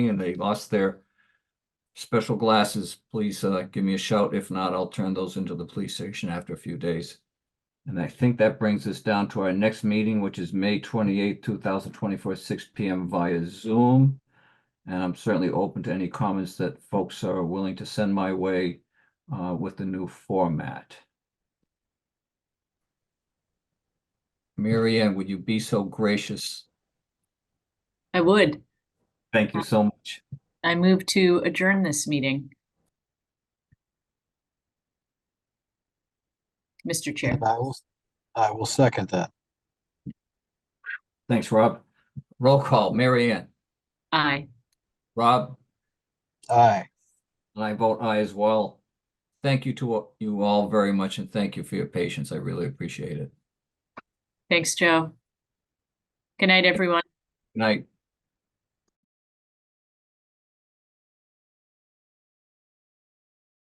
and they lost their special glasses, please uh, give me a shout. If not, I'll turn those into the police station after a few days. And I think that brings us down to our next meeting, which is May twenty-eighth, two thousand twenty-four, six P M via Zoom. And I'm certainly open to any comments that folks are willing to send my way uh, with the new format. Mary Ann, would you be so gracious? I would. Thank you so much. I move to adjourn this meeting. Mr. Chair, And I will, I will second that. Thanks, Rob. Roll call, Mary Ann, aye. Rob, Aye. and I vote aye as well. Thank you to you all very much and thank you for your patience. I really appreciate it. Thanks, Joe. Good night, everyone. Good night.